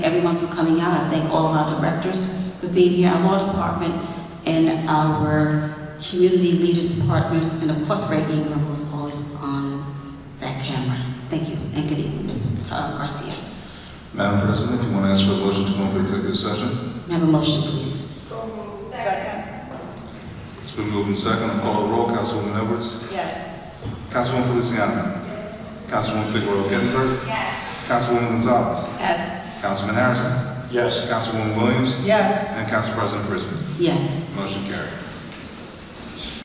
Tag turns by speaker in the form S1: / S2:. S1: everyone for coming out. I thank all of our directors for being here, our law department, and our community leaders, partners, and of course, Ray Ingram, who's always on that camera. Thank you, and good evening, Mr. Garcia.
S2: Madam President, if you want to ask for a motion to go into executive session,
S1: May I have a motion, please?
S2: it's been moved and second. I'll call a roll. Councilwoman Edwards.
S3: Yes.
S2: Councilwoman Feliciano. Councilwoman Figueroa Gettner. Councilwoman Gonzalez.
S1: Yes.
S2: Councilman Harrison.
S4: Yes.
S2: Councilwoman Williams.
S3: Yes.
S2: And Council President Prisco.
S1: Yes.
S2: Motion carried.